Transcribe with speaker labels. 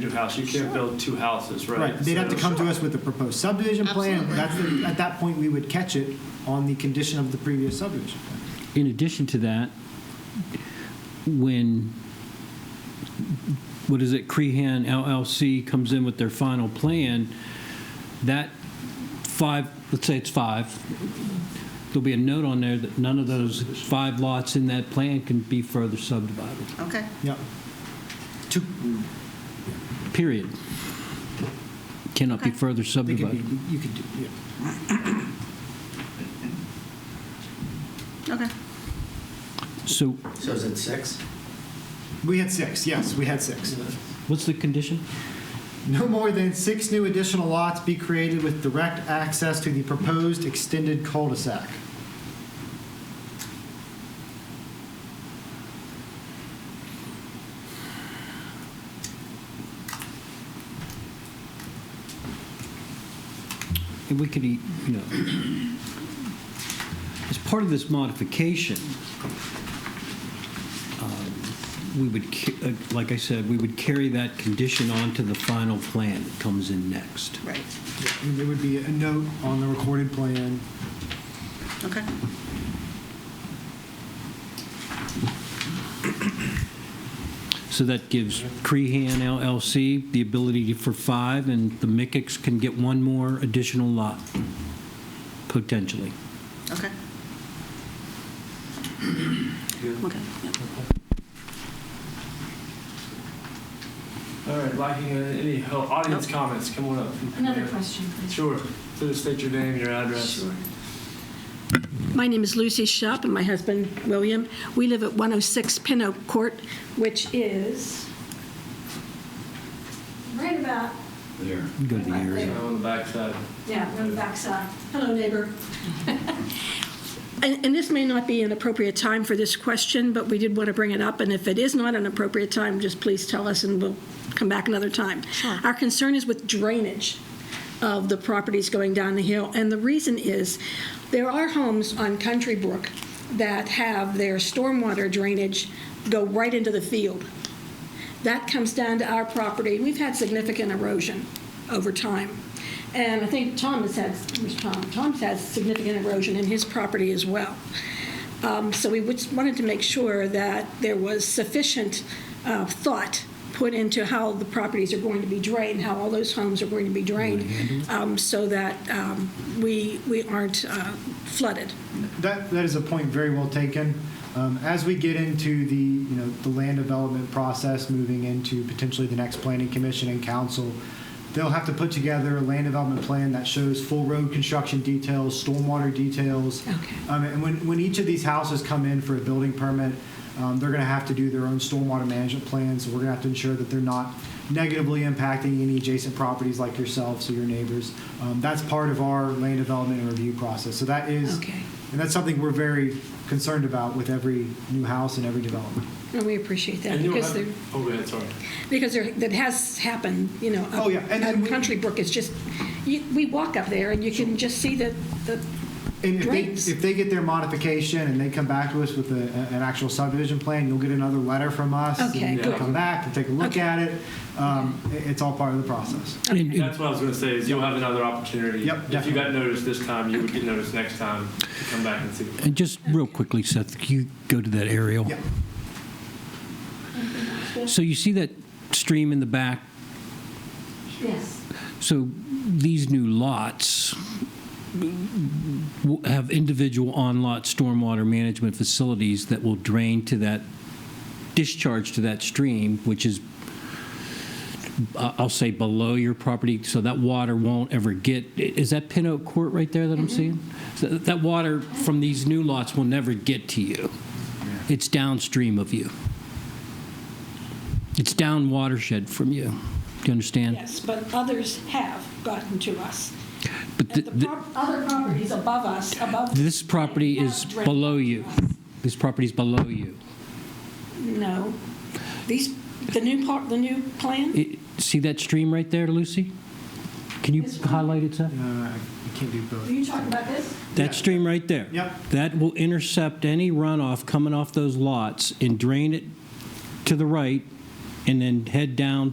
Speaker 1: new house. You can't build two houses, right?
Speaker 2: Right, they'd have to
Speaker 1: So-
Speaker 2: come to us with the proposed subdivision plan.
Speaker 3: Absolutely.
Speaker 2: That's, the- at that point, we would catch it on the condition of the previous subdivision plan.
Speaker 4: In addition to that, when, what is it, Crehan LLC comes in with their final plan, that five, let's say it's five, there'll be a note on there that none of those five lots in that plan can be further subdivided,
Speaker 3: Okay.
Speaker 2: Yep. To-
Speaker 4: period. Cannot be
Speaker 3: Okay.
Speaker 4: further
Speaker 2: They could be,
Speaker 4: subdivided.
Speaker 2: you could do, yeah.
Speaker 3: Okay.
Speaker 4: So
Speaker 5: So is it six?
Speaker 2: We had six, yes, we had six.
Speaker 4: what's the condition?
Speaker 2: No more than six new additional lots be created with direct access to the proposed extended cul-de-sac.
Speaker 4: And we could, e- you know, as part of this modification, um, we would, ca- uh, like I said, we would carry that condition on to the final plan that comes in next.
Speaker 3: Right.
Speaker 2: And there would be a note on the recorded plan.
Speaker 3: Okay.
Speaker 4: So that gives Crehan LLC the ability for five, and the Mickicks can get one more additional lot, potentially.
Speaker 3: Okay. Okay. Yep.
Speaker 1: All right, lacking any help, audience comments, come on up.
Speaker 6: Another question, please.
Speaker 1: Sure. Please state your name, your address.
Speaker 6: Sure.
Speaker 7: My name is Lucy Shop, and my husband, William. We live at 106 Pin Oak Court, which is right about,
Speaker 5: There.
Speaker 4: Go to the area.
Speaker 1: Uh, On the backside.
Speaker 7: yeah, on the backside. Hello, neighbor. And and this may not be an appropriate time for this question, but we did want to bring it up, and if it is not an appropriate time, just please tell us, and we'll come back another time.
Speaker 3: Sure.
Speaker 7: Our concern is with drainage of the properties going down the hill, and the reason is, there are homes on Country Brook that have their stormwater drainage go right into the field. That comes down to our property. We've had significant erosion over time. And I think Tom has had, where's Tom? Tom's had significant erosion in his property as well. Um, So we just wanted to make sure that there was sufficient uh, thought put into how the properties are going to be drained, how all those homes are going to be drained, um, so that um, we, we aren't uh, flooded.
Speaker 2: That, that is a point very well taken. Um, As we get into the, you know, the land development process, moving into potentially the next planning commission and council, they'll have to put together a land development plan that shows full road construction details, stormwater details.
Speaker 7: Okay.
Speaker 2: Um, And when, when each of these houses come in for a building permit, um, they're going to have to do their own stormwater management plans. We're going to have to ensure that they're not negatively impacting any adjacent properties like yourselves or your neighbors. Um, That's part of our land development and review process. So that is
Speaker 7: Okay.
Speaker 2: and that's something we're very concerned about with every new house and every development.
Speaker 7: And we appreciate that.
Speaker 1: And you'll
Speaker 7: because
Speaker 1: have-
Speaker 7: they're-
Speaker 1: Oh, go ahead, sorry.
Speaker 7: Because there, that has happened, you know. up-
Speaker 2: Oh, yeah, and-
Speaker 7: up
Speaker 2: and we-
Speaker 7: Country Brook is just, you, we walk up there and you can just see the, the,
Speaker 2: And if they,
Speaker 7: Drains.
Speaker 2: if they get their modification and they come back to us with a, a- an actual subdivision plan, you'll get another letter from us. and
Speaker 7: Okay,
Speaker 2: you can
Speaker 1: good.
Speaker 2: Come back and take a look
Speaker 7: Okay.
Speaker 2: at it. Um, it- It's all part of the process.
Speaker 4: And- and
Speaker 1: That's what I was going to say, is you'll have another opportunity.
Speaker 2: Yep,
Speaker 1: If you
Speaker 2: definitely.
Speaker 1: got noticed this time, you would get noticed next time. to Come back and see.
Speaker 4: and just real quickly, Seth, can you go to that aerial?
Speaker 2: Yeah.
Speaker 4: So you see that stream in the back
Speaker 6: Yes.
Speaker 4: So these new lots will have individual on-lot stormwater management facilities that will drain to that, discharge to that stream, which is, I- I'll say, below your property, so that water won't ever get, i- is that Pin Oak Court right there that I'm seeing? So That that water from these new lots will never get to you. It's downstream of you. It's down watershed from you. Do you understand?
Speaker 7: yes, but others have gotten to us.
Speaker 4: But
Speaker 7: And
Speaker 4: th-
Speaker 7: the
Speaker 4: th-
Speaker 7: prop- other properties above us, above.
Speaker 4: this property is
Speaker 7: have drained
Speaker 4: below you.
Speaker 7: to us.
Speaker 4: This property is below you.
Speaker 7: No. These, the new part, the new plan?
Speaker 4: It- See that stream right there, Lucy? Can you
Speaker 7: This one?
Speaker 4: highlight it, Seth?
Speaker 2: Uh, I I can't do both.
Speaker 7: Are you talking about this?
Speaker 2: Yeah.
Speaker 4: That stream right there?
Speaker 2: Yep.
Speaker 4: That will intercept any runoff coming off those lots and drain it to the right and then head down